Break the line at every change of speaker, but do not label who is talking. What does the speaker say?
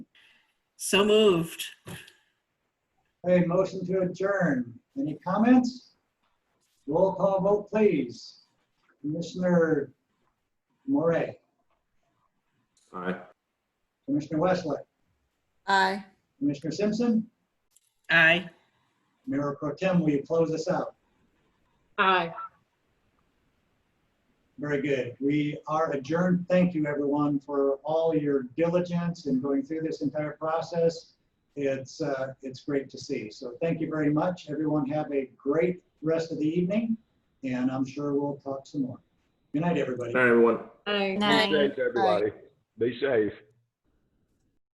So moved.
Okay, motion to adjourn. Any comments? Roll call vote, please. Commissioner Moray,
Aye.
Commissioner Westlake,
Aye.
Commissioner Simpson,
Aye.
Mayor Pro Tem, will you close us out?
Aye.
Very good. We are adjourned. Thank you, everyone, for all your diligence in going through this entire process. It's, uh, it's great to see. So thank you very much. Everyone have a great rest of the evening, and I'm sure we'll talk some more. Good night, everybody.
Good night, everyone.
Aye.
Night.
Be safe, everybody. Be safe.